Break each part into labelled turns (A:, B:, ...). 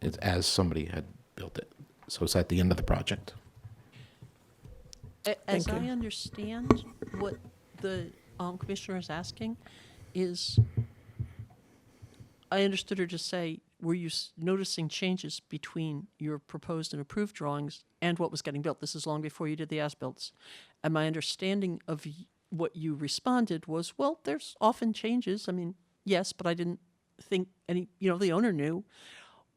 A: It's as somebody had built it. So it's at the end of the project.
B: A- As
C: Thank
B: I
C: you.
B: understand, what the um, commissioner is asking is, I understood her to say, were you s- noticing changes between your proposed and approved drawings and what was getting built? This is long before you did the as-builts. And my understanding of y- what you responded was, well, there's often changes. I mean, yes, but I didn't think any, you know, the owner knew.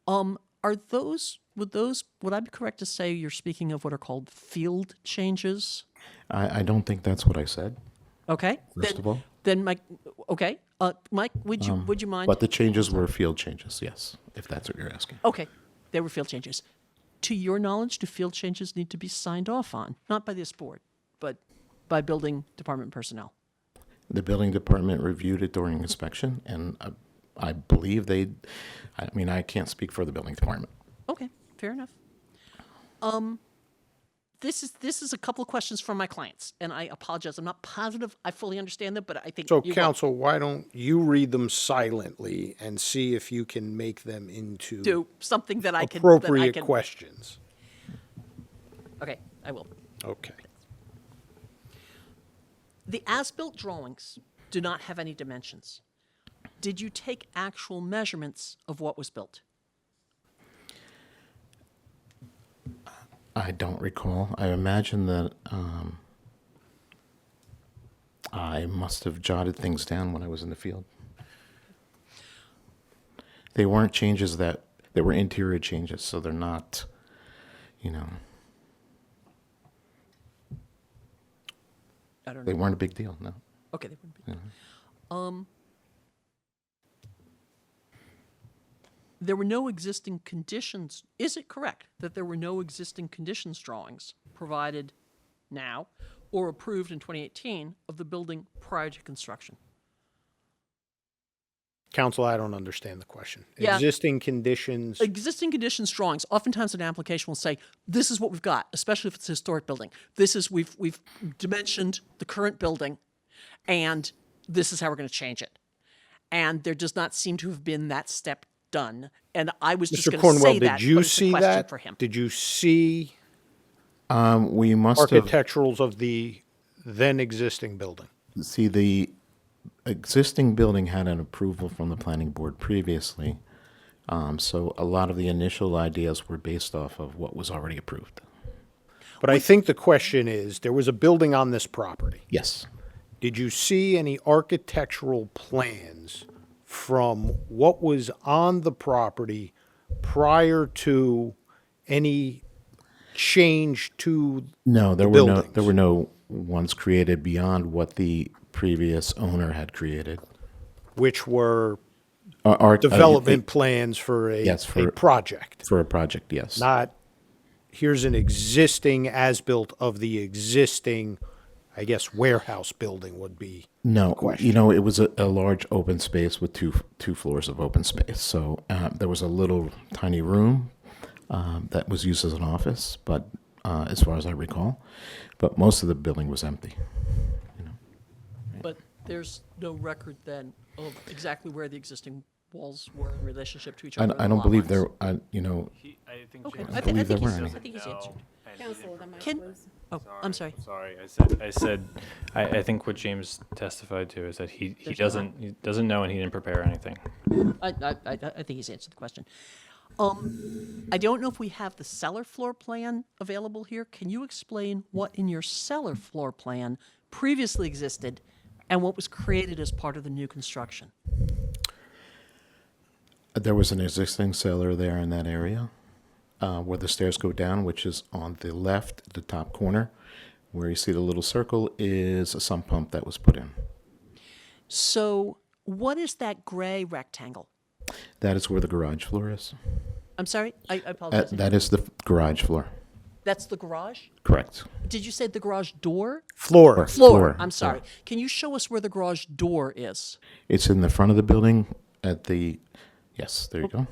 B: Um, are those would those would I be correct to say you're speaking of what are called field changes?
A: I, I don't think that's what I said,
B: Okay.
A: first
B: then,
A: of all. Um,
B: then Mike, okay, uh, Mike, would you would you mind?
A: But the changes were field changes, yes, if that's what you're asking.
B: okay, there were field changes. To your knowledge, do field changes need to be signed off on, not by this board, but by building department personnel?
A: The building department reviewed it during inspection, and I, I believe they, I mean, I can't speak for the building department.
B: Okay, fair enough. Um, this is this is a couple of questions from my clients, and I apologize. I'm not positive I fully understand them, but I think
D: So
B: you-
D: council, why don't you read them silently and see if you can make them into
B: do something that I can that I
D: appropriate
B: can,
D: questions?
B: Okay, I will.
D: Okay.
B: The as-built drawings do not have any dimensions. Did you take actual measurements of what was built?
A: I don't recall. I imagine that um, I must have jotted things down when I was in the field. They weren't changes that they were interior changes, so they're not, you know,
B: I don't
A: they
B: know.
A: weren't a big deal. No,
B: Okay, they wouldn't be. Um, there were no existing conditions. Is it correct that there were no existing conditions drawings provided now or approved in 2018 of the building prior to construction?
D: Council, I don't understand the question.
B: Yeah.
D: Existing conditions,
B: Existing conditions drawings, oftentimes an application will say, this is what we've got, especially if it's a historic building. This is, we've, we've dimensioned the current building and this is how we're going to change it. And there does not seem to have been that step done. And I was just
D: Mr.
B: going to say
D: Cornwell,
B: that,
D: did
B: but
D: you
B: it's a
D: see
B: question
D: that?
B: for him.
D: Did you see
A: um, we must have
D: architecturals of the then existing building?
A: see the existing building had an approval from the planning board previously, um, so a lot of the initial ideas were based off of what was already approved.
D: But I think the question is, there was a building on this property.
A: Yes,
D: Did you see any architectural plans from what was on the property prior to any change to,
A: No, there were no there
D: buildings.
A: were no ones created beyond what the previous owner had created.
D: which were
A: Or, or-
D: development plans for a,
A: Uh, Yes,
D: a
A: for-
D: project?
A: for a project, yes.
D: Not, here's an existing as-built of the existing, I guess, warehouse building would be.
A: no, you know, it was a, a large open space with two two floors of open space. So uh, there was a little tiny room um, that was used as an office, but uh, as far as I recall, but most of the building was empty.
B: But there's no record then of exactly where the existing walls were in relationship to each
A: I,
B: other.
A: I don't believe there. I, you know,
E: He, I think
B: Okay,
E: James
B: I,
E: doesn't
B: th- I
A: believe there
B: think he's,
A: were
B: I
A: any.
B: think he's
E: know,
B: answered.
E: and he
C: Council,
E: didn't-
C: the mic
B: Can-
C: was-
B: Oh, I'm sorry.
E: Sorry, I said, I said, I, I think what James testified to is that he, he
B: There's no-
E: doesn't, he doesn't know and he didn't prepare anything.
B: I, I, I I think he's answered the question. Um, I don't know if we have the cellar floor plan available here. Can you explain what in your cellar floor plan previously existed and what was created as part of the new construction?
A: There was an existing cellar there in that area uh, where the stairs go down, which is on the left, the top corner. Where you see the little circle is a sump pump that was put in.
B: So what is that gray rectangle?
A: That is where the garage floor is.
B: I'm sorry, I I
A: That,
B: apologize.
A: Uh, that is the f- garage floor.
B: That's the garage?
A: Correct.
B: Did you say the garage door?
D: Floor,
B: Floor, I'm sorry. Can you show us where the garage door is?
A: It's in the front of the building at the. Yes, there you go.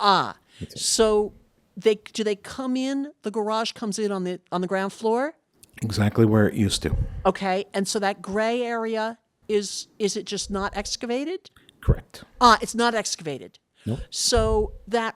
B: Ah, so they, do they come in, the garage comes in on the, on the ground floor?
A: Exactly where it used to.
B: Okay, and so that gray area is, is it just not excavated?
A: Correct.
B: Ah, it's not excavated. So that